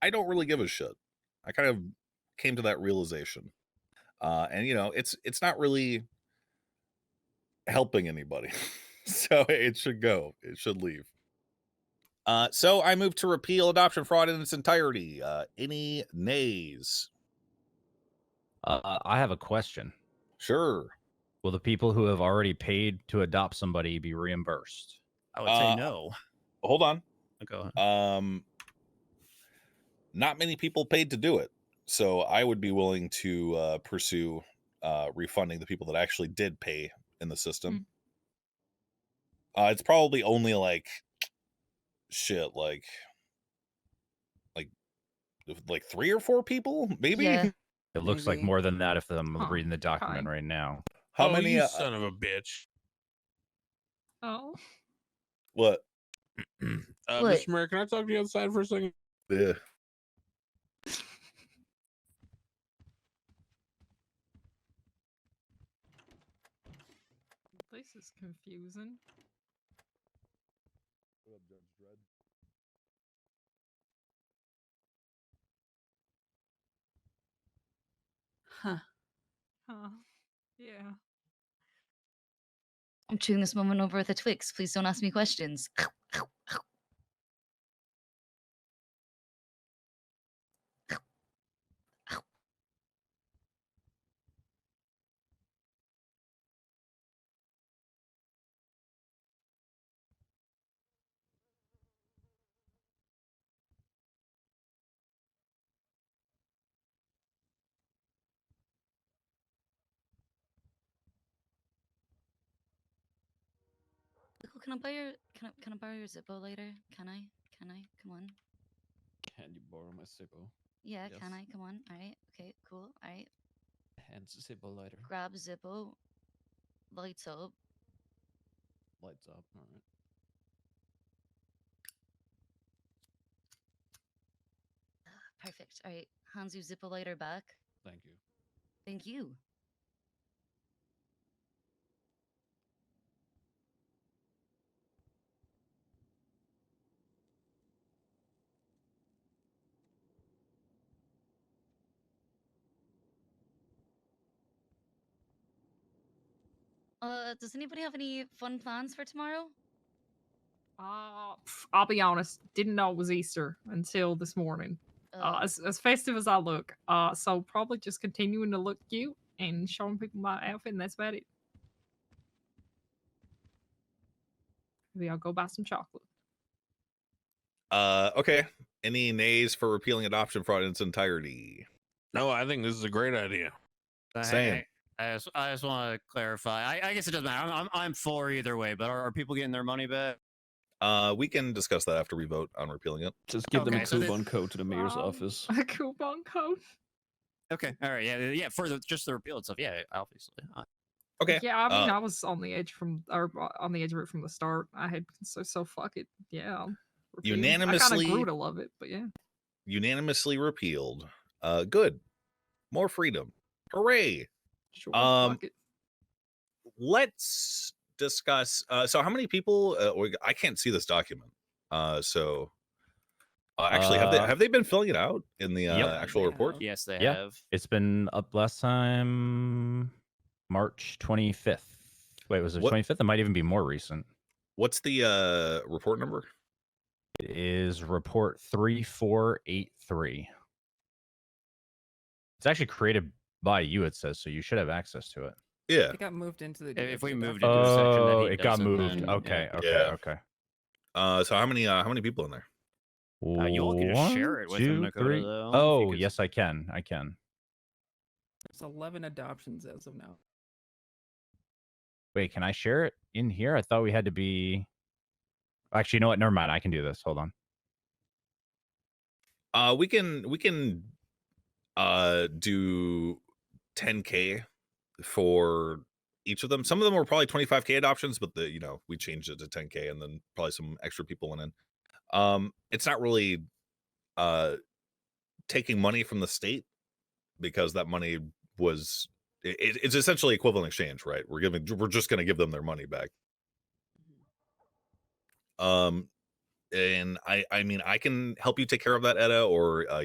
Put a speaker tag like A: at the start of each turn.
A: I don't really give a shit. I kind of came to that realization. Uh, and you know, it's it's not really helping anybody. so it should go. It should leave. Uh, so I move to repeal adoption fraud in its entirety. Uh, any nays?
B: Uh, I have a question.
A: Sure.
B: Will the people who have already paid to adopt somebody be reimbursed?
C: I would say
A: Uh,
C: no.
A: Hold on.
C: Go ahead.
A: Um, not many people paid to do it, so I would be willing to uh, pursue uh, refunding the people that actually did pay in the system. Uh, it's probably only like shit, like like if- like three or four people, maybe.
D: Yeah.
B: It looks like
D: Maybe.
B: more than that if I'm
D: Huh,
B: reading the document
D: fine.
B: right now.
A: How
E: oh,
A: many?
E: You
A: Uh,
E: son of a bitch.
D: Oh.
A: what?
E: Uh,
D: What?
E: Mr. Mayor, can I talk to you outside for a second?
A: Yeah.
D: This is confusing.
F: Huh.
D: Huh. Yeah.
F: I'm chewing this moment over with a Twix. Please don't ask me questions. Cool, oh, Can I buy your can I can I borrow your Zippo later? Can I? Can I? Come on.
G: Can you borrow my Sibo?
F: Yeah, can I?
G: Yes.
F: Come on. All right. Okay. Cool. All right.
G: And Sibo lighter.
F: Grab Zippo. Lights up.
G: Lights up. All right.
F: Perfect. All right. Hands your Zippo lighter back.
G: Thank you.
F: Thank you. Uh, does anybody have any fun plans for tomorrow?
D: Uh, pff, I'll be honest, didn't know it was Easter until this morning. Uh, as, as festive as I look. Uh, so probably just continuing to look cute and showing people my outfit, and that's about it. Maybe I'll go buy some chocolate.
A: Uh, okay. Any nays for repealing adoption fraud in its entirety?
E: No, I think this is a great idea.
H: But hey,
A: Same.
H: I, I just, I just want to clarify. I, I guess it doesn't matter. I'm, I'm, I'm for either way. But are, are people getting their money back?
A: Uh, we can discuss that after we vote on repealing it.
G: Just give them a
H: Okay, so this-
G: coupon code to the mayor's
D: Um,
G: office.
D: A coupon code.
H: Okay. All right. Yeah. Yeah. For the just the repeal itself. Yeah. Obviously. Uh,
A: Okay.
D: Yeah, I mean,
A: uh,
D: I was on the edge from or uh, on the edge of it from the start. I had so so fuck it. Yeah. I'll repeal. I
A: Unanimously-
D: kind of grew to love it, but yeah.
A: Unanimously repealed. Uh, good. More freedom. Hooray.
D: Sure.
A: Um,
D: fuck it.
A: Let's discuss. Uh, so how many people? Uh, we- I can't see this document. Uh, so uh, actually, have they
B: Uh,
A: have they been filling it out in the uh,
B: yep.
A: actual report?
H: Yes, they
B: Yeah.
H: have.
B: It's been up last time, March 25th. Wait, was it
A: What-
B: 25th? It might even be more recent.
A: What's the uh, report number?
B: It is report 3483. It's actually created by you, it says, so you should have access to it.
A: Yeah.
I: It got moved into the.
H: If- if we
I: DFG
H: moved
I: document.
H: into a section that
B: Oh,
H: he
B: it got
H: doesn't,
B: moved.
H: then, yeah.
B: Okay, okay,
A: Yeah.
B: okay.
A: Uh, so how many uh, how many people in there?
H: Uh, you all can just share
B: One,
H: it with him,
B: two,
H: Dakota,
B: three.
H: though, if you
B: Oh,
H: could-
B: yes, I can. I can.
I: There's 11 adoptions as of now.
B: Wait, can I share it in here? I thought we had to be. Actually, you know what? Never mind. I can do this. Hold on.
A: Uh, we can we can uh do 10k for each of them. Some of them were probably 25k adoptions, but the you know we changed it to 10k, and then probably some extra people went in. Um, it's not really uh taking money from the state because that money was it, it- it's essentially equivalent exchange, right? We're giving we're just going to give them their money back. Um, and I I mean I can help you take care of that Etta or uh,